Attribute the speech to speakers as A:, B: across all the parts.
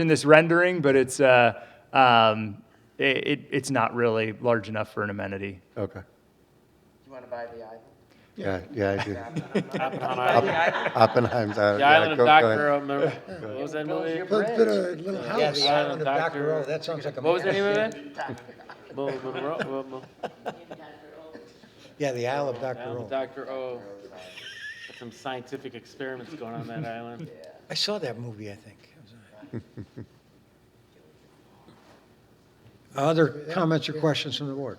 A: in this rendering, but it's, uh, um, it, it- it's not really large enough for an amenity.
B: Okay.
C: You want to buy the island?
B: Yeah, yeah, I do.
C: Buy the island?
B: Oppenheimer's. uh,
D: The
B: yeah,
D: Island of
B: go- go ahead.
D: Dr. Um, uh, what was that
C: Close
D: movie?
C: your
D: What
E: Let's put
C: bridge.
E: a little
D: the
E: house
D: Island
E: out on
D: of
E: Dr. O,
D: Dr.
E: that sounds like a.
D: was the
E: mess.
D: name of it? Mo- Monroe- well, Mo-
E: Yeah, the Isle of Dr.
D: Island of
E: O.
D: Dr. O. Got Some scientific experiments going on that island.
E: I saw that movie, I think. It was all right. Other comments or questions from the board?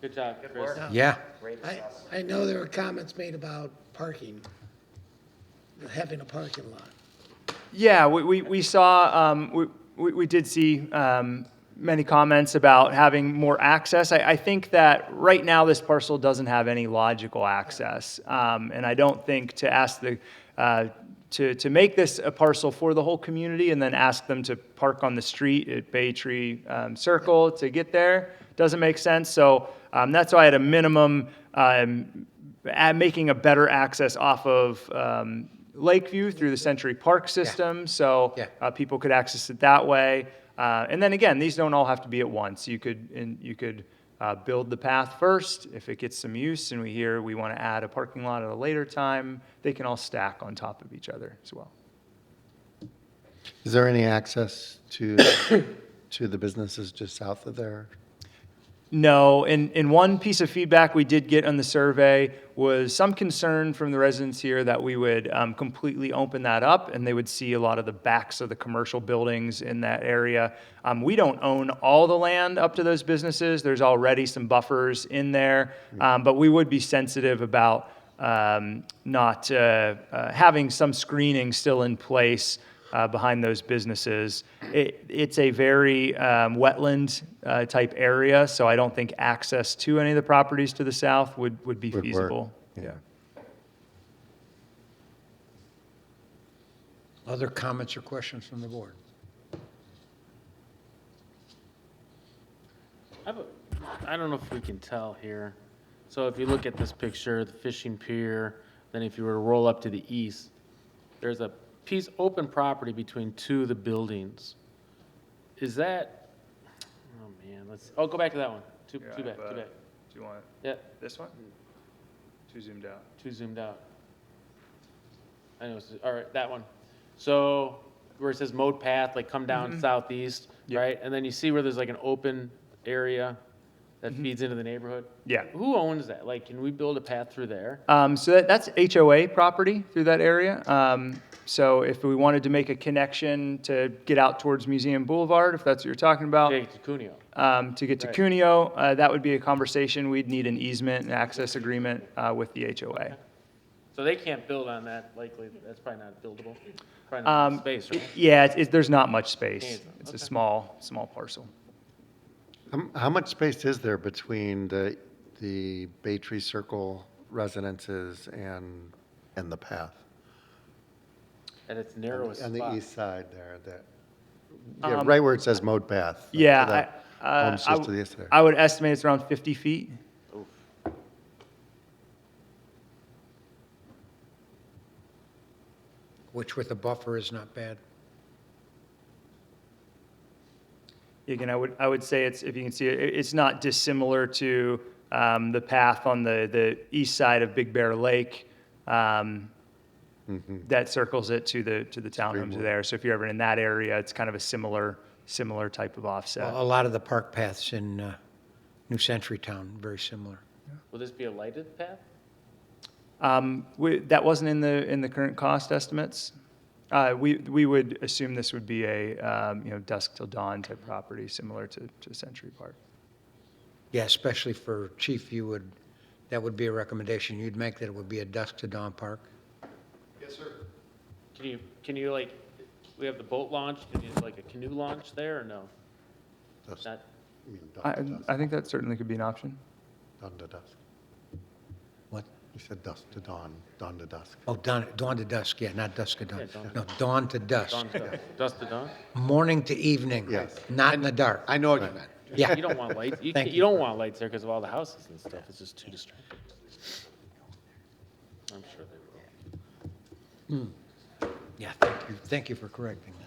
D: Good job, Chris.
E: Yeah.
C: Great
F: I,
C: assessment.
F: I know there were comments made about parking, having a parking lot.
A: Yeah, we, we, we saw, um, we, we, we did see, um, many comments about having more access. I, I think that right now this parcel doesn't have any logical access. Um, and I don't think to ask the, uh, to, to make this a parcel for the whole community and then ask them to park on the street at Bay Tree, um, Circle to get there doesn't make sense. So, um, that's why at a minimum, um, at making a better access off of um, Lakeview through the Century Park system, so
E: Yeah.
A: uh, people could access it that way. Uh, and then again, these don't all have to be at once. You could and you could uh, build the path first. If it gets some use, and we hear we want to add a parking lot at a later time, they can all stack on top of each other as well.
B: Is there any access to, to the businesses just south of there?
A: No, and, and one piece of feedback we did get on the survey was some concern from the residents here that we would um, completely open that up and they would see a lot of the backs of the commercial buildings in that area. Um, we don't own all the land up to those businesses. There's already some buffers in there, um, but we would be sensitive about um, not uh, uh, having some screening still in place uh, behind those businesses. It, it's a very um, wetland uh, type area, so I don't think access to any of the properties to the south would, would be
B: Would work.
A: feasible.
B: Yeah.
E: Other comments or questions from the board?
D: I have a- I don't know if we can tell here. So if you look at this picture, the fishing pier, then if you were to roll up to the east, there's a piece, open property between two of the buildings. Is that, oh man, let's, oh, go back to that one. Too, too bad, too bad.
A: Do you want
D: Yeah,
A: this one? Too zoomed out.
D: too zoomed out. I know, it's- all right, that one. So where it says mode path, like come
A: Mm-hmm.
D: down southeast,
A: Yep.
D: right? And then you see where there's like an open area that feeds into the neighborhood?
A: Mm-hmm. Yeah.
D: Who owns that? Like, can we build a path through there?
A: Um, so that, that's HOA property through that area. Um, so if we wanted to make a connection to get out towards Museum Boulevard, if that's what you're talking about,
D: Okay, to Cuneo.
A: um, to get to
D: Right.
A: Cuneo, uh, that would be a conversation. We'd need an easement and access agreement uh, with the HOA.
D: So they can't build on that likely, that's probably not buildable. Probably not
A: Um,
D: enough space,
A: it-
D: right?
A: Yeah, it's- it's- there's not much space.
D: Okay.
A: It's a small, small parcel.
B: Um, How much space is there between the, the Bay Tree Circle residences and, and the path?
D: At its narrowest
B: On the
D: spot.
B: east side there, that, yeah, right where it says mode path. to
A: Um, Yeah,
B: that
A: I, uh,
B: homes
A: I
B: just to the
A: w-
B: east there.
A: I would estimate it's around 50 feet.
E: Which with a buffer is not bad.
A: Again, I would, I would say it's, if you can see, it, it's not dissimilar to um, the path on the, the east side of Big Bear Lake um,
B: Mm-hmm.
A: that circles it to the, to the townhomes there. So if you're ever in that area, it's kind of a similar, similar type of offset.
E: A lot of the park paths in uh, New Century Town, very similar.
D: Will this be a lighted path?
A: Um, we- That wasn't in the, in the current cost estimates. Uh, We, we would assume this would be a, um, you know, dusk till dawn type property, similar to, to Century Park.
E: Yeah, especially for chief, you would, that would be a recommendation you'd make, that it would be a dusk to dawn park.
D: Can you, can you like, we have the boat launch, can you like a canoe launch there or no?
B: Dusk.
D: Not,
B: I mean, dawn
A: I,
B: to dusk,
A: I think that certainly could be an option.
B: Dawn to dusk.
E: What?
B: You said dusk to dawn, dawn to dusk.
E: Oh, dawn, dawn to dusk, yeah, not dusk to
D: Yeah,
E: dawn.
D: dawn to
E: No, dawn to dusk,
D: dawn to dawn. dusk to dawn?
E: morning to evening.
B: Yes.
E: Not in the dark.
G: I know what you meant.
E: Yeah,
D: You don't want lights, you,
E: Thank
D: can't-
E: you.
D: you don't want lights there because of all the houses and stuff, it's just too distracting. I'm sure they will.
E: Yeah, thank you, thank you for correcting that.